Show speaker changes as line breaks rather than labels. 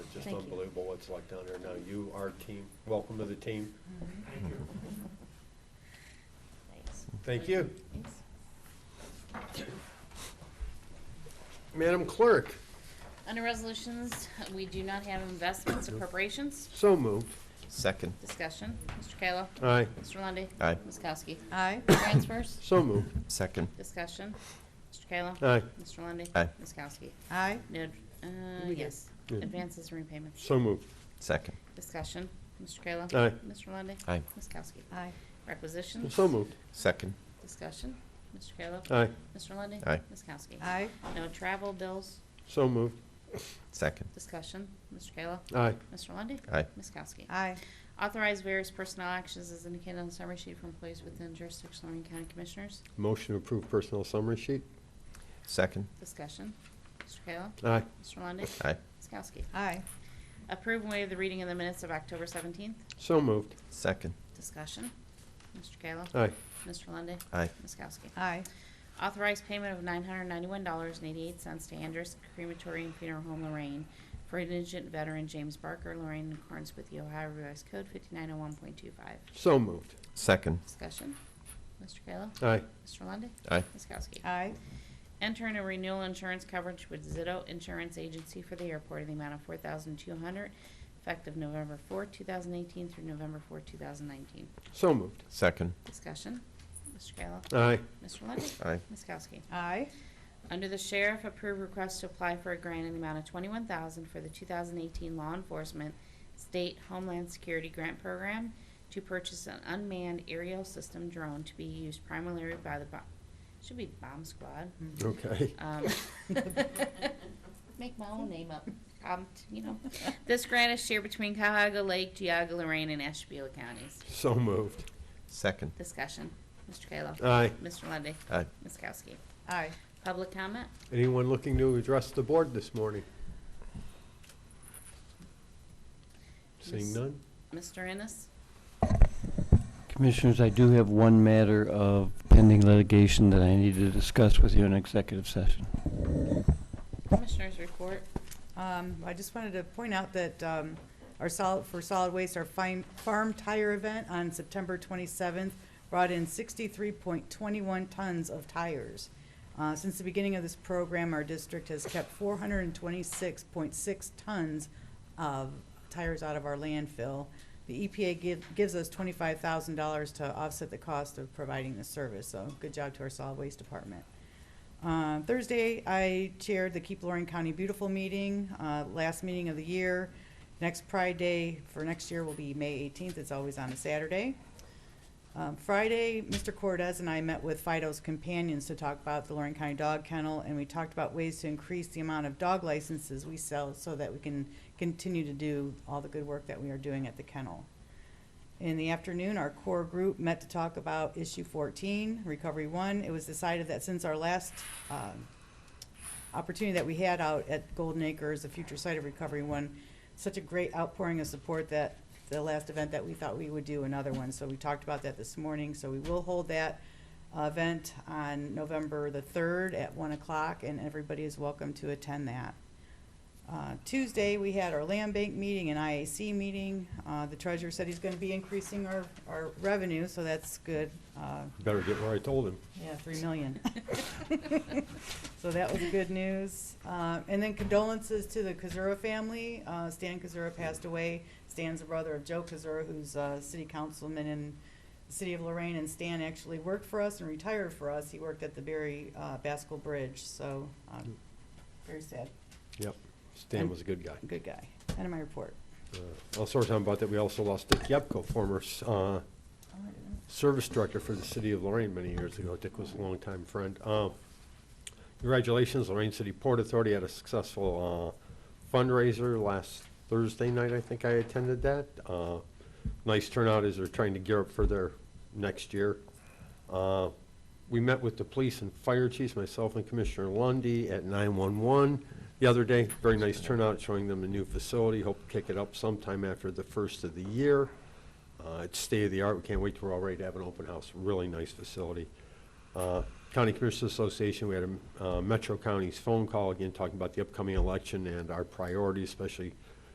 just
Thank you.
unbelievable what's like down there now. You, our team, welcome to the team.
Thanks.
Thank you.
Thanks.
Madam Clerk,
Under resolutions, we do not have investments or appropriations.
so moved.
Second.
Discussion. Mr. Kayla.
Aye,
Mr. Lundey.
Aye.
Ms. Kowski.
Aye.
Transfers.
so moved.
Second.
Discussion. Mr. Kayla.
Aye,
Mr. Lundey.
Aye.
Ms. Kowski.
Aye.
No, uh, yes.
Yeah.
Advances and repayments.
so moved.
Second.
Discussion. Mr. Kayla.
Aye.
Mr. Lundey.
Aye.
Ms. Kowski.
Aye.
Requisitions.
So moved.
Second.
Discussion. Mr. Kayla.
Aye,
Mr. Lundey.
Aye.
Ms. Kowski.
Aye.
No travel bills.
so moved.
Second.
Discussion. Mr. Kayla.
Aye,
Mr. Lundey.
Aye.
Ms. Kowski.
Aye.
Authorize various personnel actions as indicated on the summary sheet for employees within jurisdiction of Lorraine County Commissioners.
motion to approve personnel summary sheet.
Second.
Discussion. Mr. Kayla.
Aye,
Mr. Lundey.
Aye.
Ms. Kowski.
Aye.
Approve and waive the reading of the minutes of October 17th.
so moved.
Second.
Discussion. Mr. Kayla.
Aye,
Mr. Lundey.
Aye.
Ms. Kowski.
Aye.
Authorize payment of $991.88 to Andrus Crematory and Funeral Home Lorraine for indigent veteran James Barker, Lorraine, in accordance with the Ohio Revised Code 5901.25.
so moved.
Second.
Discussion. Mr. Kayla.
Aye,
Mr. Lundey.
Aye.
Ms. Kowski.
Aye.
Enter into renewal insurance coverage with Zito Insurance Agency for the airport in the amount of four thousand two hundred, effective November four, two thousand eighteen through November four, two thousand nineteen.
so moved.
Second.
Discussion, Mr. Kayla.
Aye,
Mr. Lundey.
Aye.
Ms. Kowski.
Aye.
Under the sheriff, approve request to apply for a grant in the amount of twenty-one thousand for the two thousand eighteen law enforcement state homeland security grant program to purchase an unmanned aerial system drone to be used primarily by the, bo- should be bomb squad.
okay.
Um, Make my own name up. Um, you know, this grant is shared between Cahoga Lake, Geauga, Lorraine, and Ashtabula counties.
So moved.
Second.
Discussion. Mr. Kayla.
Aye,
Mr. Lundy,
Aye.
Ms. Kowski.
Aye.
Public comment?
anyone looking to address the board this morning? Seeing
Miss-
none?
Mr. Ennis?
Commissioners, I do have one matter of pending litigation that I need to discuss with you in executive session.
Commissioners report.
Um, I just wanted to point out that, um, our solid, for solid waste, our fine, farm tire event on September twenty-seventh brought in sixty-three point twenty-one tons of tires. Uh, since the beginning of this program, our district has kept four hundred and twenty-six point six tons of tires out of our landfill. The EPA give, gives us twenty-five thousand dollars to offset the cost of providing the service, so good job to our solid waste department. Uh, Thursday, I chaired the Keep Lorraine County Beautiful meeting, uh, last meeting of the year. Next Pride Day for next year will be May 18th. It's always on a Saturday. Um, Friday, Mr. Cortez and I met with Fido's companions to talk about the Lorraine County Dog Kennel, and we talked about ways to increase the amount of dog licenses we sell so that we can continue to do all the good work that we are doing at the kennel. In the afternoon, our core group met to talk about issue fourteen, recovery one. It was decided that since our last, um, opportunity that we had out at Golden Acres, the future site of recovery one, such a great outpouring of support that the last event that we thought we would do another one, so we talked about that this morning, so we will hold that uh, event on November the third at one o'clock, and everybody is welcome to attend that. Uh, Tuesday, we had our land bank meeting and IAC meeting. Uh, The treasurer said he's going to be increasing our, our revenue, so that's good. Uh,
Better get where I told him.
Yeah, three million. So that was good news. Uh, And then condolences to the Kazura family. Uh, Stan Kazura passed away. Stan's the brother of Joe Kazura, who's a city councilman in the city of Lorraine. And Stan actually worked for us and retired for us. He worked at the Berry uh, Baskel Bridge, so um, very sad.
Yep, Stan was a good guy.
Good guy. End of my report.
Uh, Also, we're talking about that, we also lost Dick Yepko, former uh,
Oh,
service director for the city of Lorraine many years ago. Dick was a longtime friend. Uh, Congratulations, Lorraine City Port Authority had a successful uh, fundraiser last Thursday night, I think I attended that. Uh, Nice turnout as they're trying to gear up for their next year. Uh, We met with the police and fire chiefs, myself and Commissioner Lundy at 911 the other day. Very nice turnout, showing them the new facility. Hope to kick it up sometime after the first of the year. Uh, It's state-of-the-art. We can't wait till we're all ready to have an open house. Really nice facility. Uh, County Commissioners Association, we had a uh, Metro County's phone call again, talking about the upcoming election and our priorities, especially